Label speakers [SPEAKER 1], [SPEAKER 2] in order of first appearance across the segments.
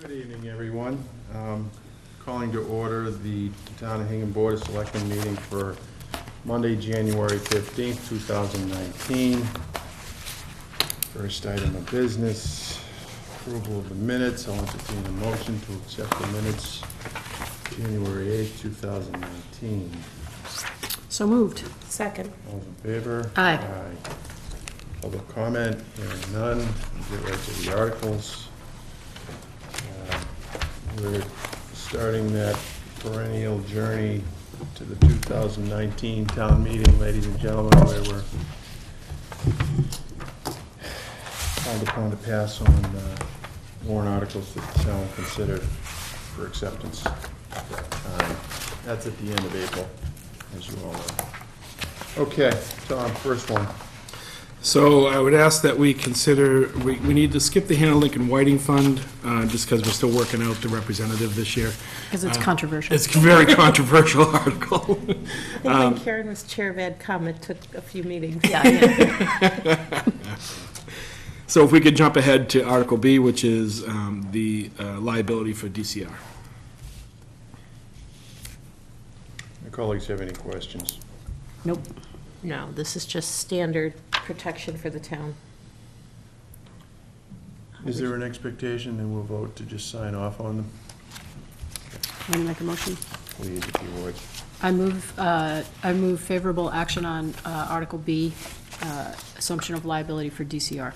[SPEAKER 1] Good evening, everyone. Um, Calling to order the Town of Hingham Board of Selectmen meeting for Monday, January 15th, 2019. First item of business, approval of the minutes. I'll entertain a motion to accept the minutes, January 8th, 2019.
[SPEAKER 2] So moved.
[SPEAKER 3] Second.
[SPEAKER 1] All in favor?
[SPEAKER 2] Aye.
[SPEAKER 1] Public comment, hearing none, We'll get right to the articles. Uh, We're starting that perennial journey to the 2019 town meeting, ladies and gentlemen, where we're called upon to pass on uh, warrant articles that the town will consider for acceptance. at that time. That's at the end of April, as you all know. Okay, Tom, first one.
[SPEAKER 4] So I would ask that we consider, we, we need to skip the Hannah Lincoln Whiting Fund, uh, just because we're still working out the representative this year.
[SPEAKER 2] Because it's controversial.
[SPEAKER 4] Uh, It's a very controversial article.
[SPEAKER 3] I think when Karen was chair of AdCom, it took a few meetings.
[SPEAKER 2] Yeah.
[SPEAKER 4] So if we could jump ahead to Article B, which is, um, the uh, liability for DCR.
[SPEAKER 1] Your colleagues have any questions?
[SPEAKER 2] Nope.
[SPEAKER 3] No, this is just standard protection for the town.
[SPEAKER 1] Is there an expectation that we'll vote to just sign off on them?
[SPEAKER 2] i make a motion.
[SPEAKER 1] Please, if you would.
[SPEAKER 2] I move, uh, I move favorable action on uh, Article B, uh, assumption of liability for DCR.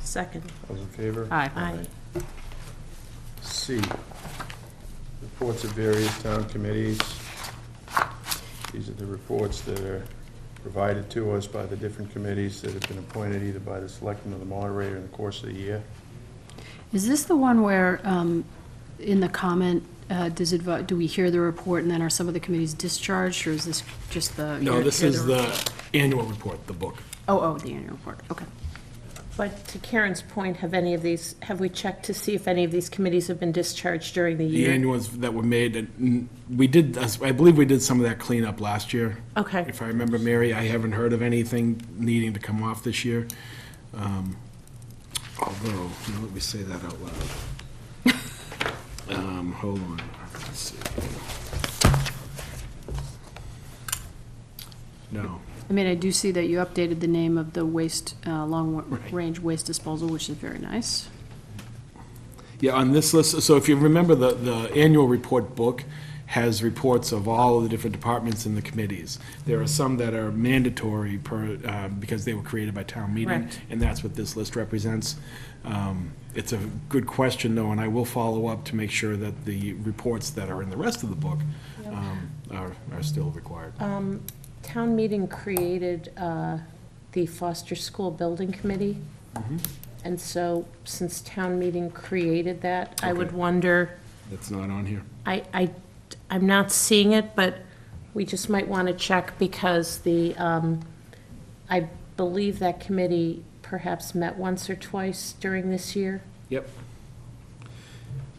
[SPEAKER 3] Second.
[SPEAKER 1] Those in favor?
[SPEAKER 2] Aye.
[SPEAKER 3] Aye.
[SPEAKER 1] C, reports of various town committees. These are the reports that are provided to us by the different committees that have been appointed either by the selectman or the moderator in the course of the year.
[SPEAKER 2] Is this the one where, um, in the comment, uh, does it, vo- do we hear the report and then are some of the committees discharged, or is this just the?
[SPEAKER 4] No, this
[SPEAKER 2] hear
[SPEAKER 4] is the annual report, the book.
[SPEAKER 2] Oh, oh, the annual report, okay.
[SPEAKER 3] But to Karen's point, have any of these, have we checked to see if any of these committees have been discharged during the
[SPEAKER 4] The
[SPEAKER 3] year?
[SPEAKER 4] annuals that were made, and mm, we did, I believe we did some of that cleanup last year.
[SPEAKER 3] Okay.
[SPEAKER 4] If I remember, Mary, I haven't heard of anything needing to come off this year. Um, Although, now let me say that out loud. Um, Hold on, let's see. No,
[SPEAKER 2] I mean, I do see that you updated the name of the waste, uh, long-range waste disposal, which is very nice.
[SPEAKER 4] yeah, on this list, so if you remember, the, the annual report book has reports of all of the different departments and the committees. There are some that are mandatory per, uh, because they were created by town meeting.
[SPEAKER 3] Correct.
[SPEAKER 4] and that's what this list represents. Um, It's a good question, though, and I will follow up to make sure that the reports that are in the rest of the book um, are, are still required.
[SPEAKER 3] Town meeting created uh, the Foster School Building Committee. And so since town meeting created that, I would
[SPEAKER 4] Okay.
[SPEAKER 3] wonder,
[SPEAKER 4] That's not on here.
[SPEAKER 3] I, I, I'm not seeing it, but we just might want to check because the, um, I believe that committee perhaps met once or twice during this year.
[SPEAKER 4] Yep.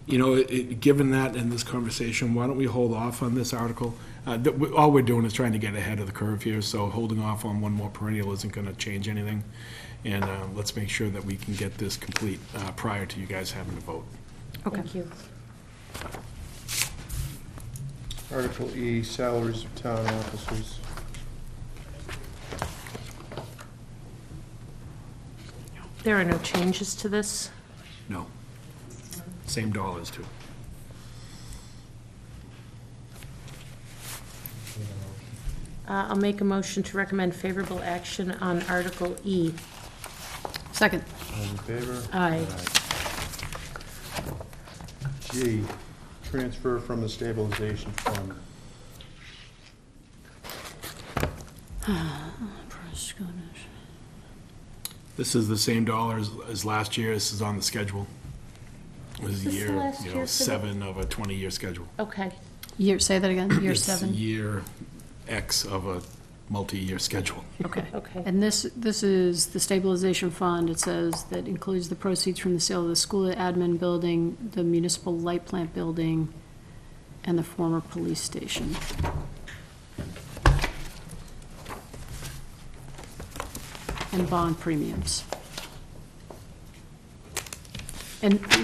[SPEAKER 4] You know, it- it- given that in this conversation, why don't we hold off on this article? Uh, that we- All we're doing is trying to get ahead of the curve here, so holding off on one more perennial isn't going to change anything. And uh, let's make sure that we can get this complete uh, prior to you guys having to vote.
[SPEAKER 3] Thank you.
[SPEAKER 1] Article E, salaries of town officers.
[SPEAKER 3] There are no changes to this.
[SPEAKER 4] No. Same dollars, too.
[SPEAKER 3] Uh, I'll make a motion to recommend favorable action on Article E.
[SPEAKER 2] Second.
[SPEAKER 1] All in favor?
[SPEAKER 3] Aye.
[SPEAKER 1] G, transfer from the stabilization fund.
[SPEAKER 4] This is the same dollars as last year, this is on the schedule. It was
[SPEAKER 3] This is the
[SPEAKER 4] year,
[SPEAKER 3] last
[SPEAKER 4] you
[SPEAKER 3] year for
[SPEAKER 4] know,
[SPEAKER 3] the-
[SPEAKER 4] seven of a 20-year schedule.
[SPEAKER 3] Okay,
[SPEAKER 2] Year, say that again, year
[SPEAKER 4] It's
[SPEAKER 2] seven?
[SPEAKER 4] Year X of a multi-year schedule.
[SPEAKER 2] Okay.
[SPEAKER 3] okay.
[SPEAKER 2] And this, this is the stabilization fund, it says, that includes the proceeds from the sale of the school admin building, the municipal light plant building, and the former police station. And bond premiums. And